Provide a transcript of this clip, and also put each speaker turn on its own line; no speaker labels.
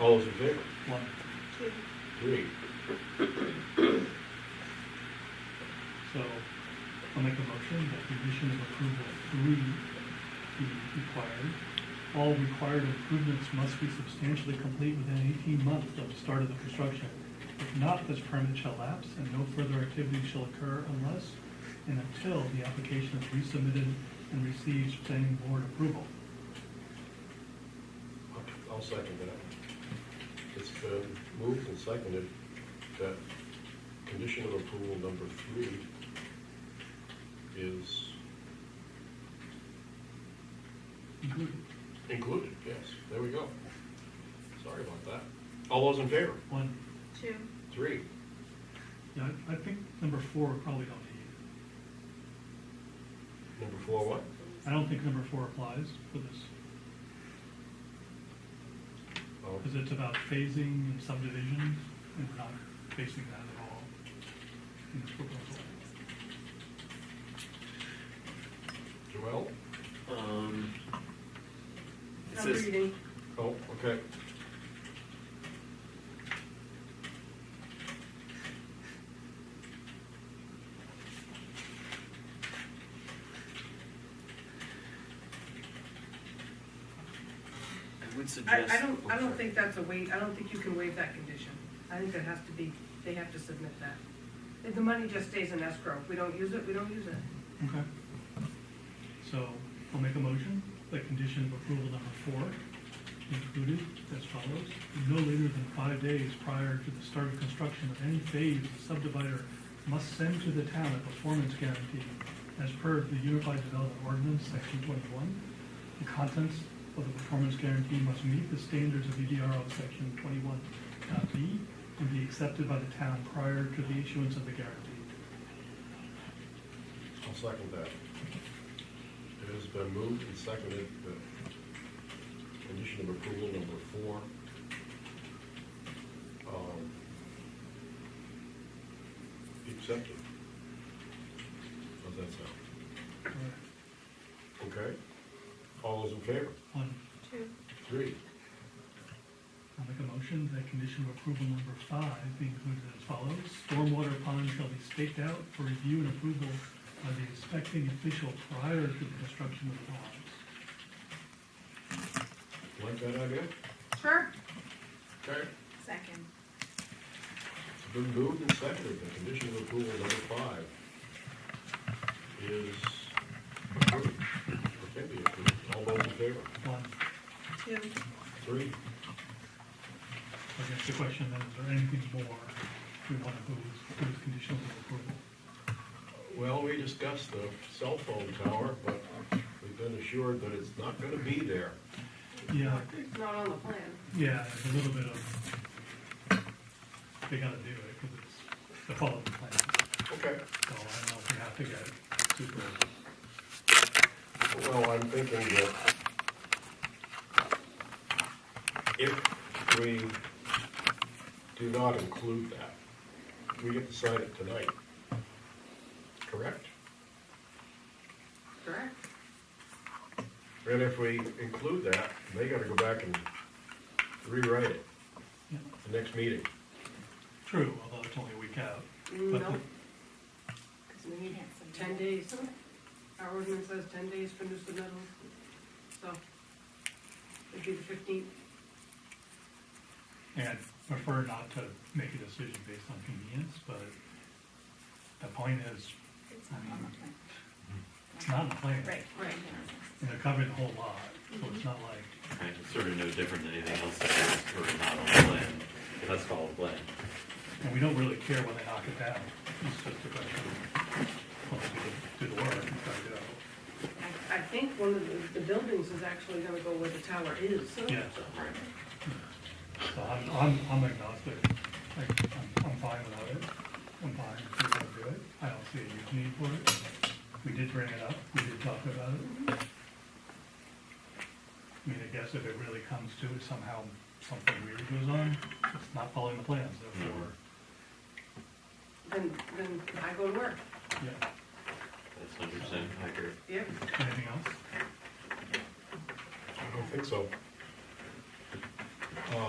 All those in favor?
One.
Two.
Three.
So I'll make a motion that condition of approval three be required. All required improvements must be substantially complete within eighteen months of the start of the construction. If not, this permit shall lapse and no further activity shall occur unless and until the application is resubmitted and receives planning board approval.
I'll- I'll second that. It's been moved and seconded that condition of approval number three is
Good.
included, yes, there we go. Sorry about that. All those in favor?
One,
Two.
Three.
yeah, I I think number four we probably don't need.
Number four, what?
I don't think number four applies for this.
Oh,
Because it's about phasing and subdivision, and we're not facing that at all in this proposal.
Joel?
Um, it
I'm
says,
reading.
Oh, okay.
I would
I,
suggest.
I don't, I
oh,
don't
sorry.
think that's a waive, I don't think you can waive that condition. I think that has to be, they have to submit that. If The money just stays in escrow. If we don't use it, we don't use it.
Okay. So I'll make a motion, that condition of approval number four included as follows. No later than five days prior to the start of construction of any phase, the subdivider must send to the town a performance guarantee as per the Unified Development Ordinance, section twenty-one. The contents of the performance guarantee must meet the standards of EDRO section twenty-one B and be accepted by the town prior to the issuance of the guarantee.
I'll second that. It has been moved and seconded that condition of approval number four. um, be Accepted. How's that sound?
All right.
Okay? All those in favor?
One,
Two.
Three.
I'll make a motion that condition of approval number five be included as follows. Stormwater pond shall be staked out for review and approval by the inspecting official prior to the construction of the ponds.
Like that idea?
Sure?
Okay.
Second.
It's been moved and seconded that condition of approval number five is approved, or can be approved. All those in favor?
One,
Two.
Three.
I guess the question then, is there anything more we want to move with conditions of approval?
Well, we discussed the cell phone tower, but we've been assured that it's not gonna be there.
Yeah,
It's not on the plan.
yeah, there's a little bit of, they gotta do it because it's the follow-up plan.
Okay.
So I don't know if we have to get super,
Well, I'm thinking that if we do not include that, we get to sign it tonight, correct?
Correct?
And if we include that, they gotta go back and rewrite it
yeah,
the next meeting.
true, although it's only a week out.
Mm, No,
But the-
because we need ten days. Our ordinance says ten days for new submittals, so it'd be the fifteenth.
And prefer not to make a decision based on convenience, but the point is,
It's not on the plan.
it's not in the plan.
Right.
Right.
And they're covering the whole lot, so it's not like,
Right, it's sort of no different than anything else that is sort of not on the plan, that's called the plan.
and we don't really care when they knock it down. It's just a question of, well, do the work and try to do it.
I, I think one of the, the buildings is actually gonna go where the tower is.
Yeah,
Right.
so I'm, I'm, I'm agnostic. Like, I'm, I'm fine without it. I'm fine if we don't do it. I don't see a huge need for it. We did bring it up. We did talk about it. I mean, I guess if it really comes to it somehow, something weird goes on, it's not following the plans, therefore,
Then, then I go to work.
yeah.
That's hundred percent accurate.
Yep.
Anything else?
I don't think so. Uh,